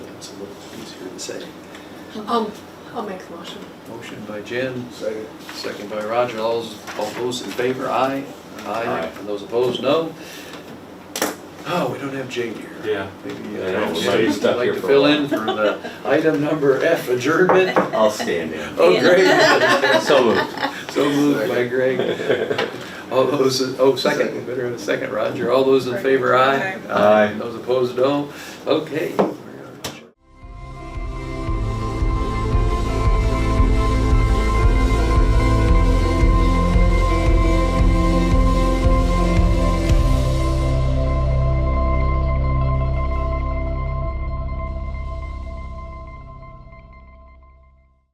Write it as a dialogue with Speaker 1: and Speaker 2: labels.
Speaker 1: a little easier to say.
Speaker 2: Um, I'll make the motion.
Speaker 1: Motion by Jen,
Speaker 3: Second.
Speaker 1: second by Roger. All those, all those in favor, aye. Aye. And those opposed, no. Oh, we don't have Jane here.
Speaker 4: Yeah.
Speaker 1: Maybe
Speaker 4: I know,
Speaker 1: uh,
Speaker 4: we
Speaker 1: Jane
Speaker 4: might be
Speaker 1: would
Speaker 4: stuck
Speaker 1: like
Speaker 4: here
Speaker 1: to
Speaker 4: for a
Speaker 1: fill
Speaker 4: while.
Speaker 1: in for the item number F, adjournment.
Speaker 4: I'll stand in.
Speaker 1: Oh, great.
Speaker 4: So moved.
Speaker 1: So moved by Greg. All those, oh, second, better have a second, Roger. All those in favor, aye.
Speaker 4: Aye.
Speaker 1: Those opposed, no. Okay,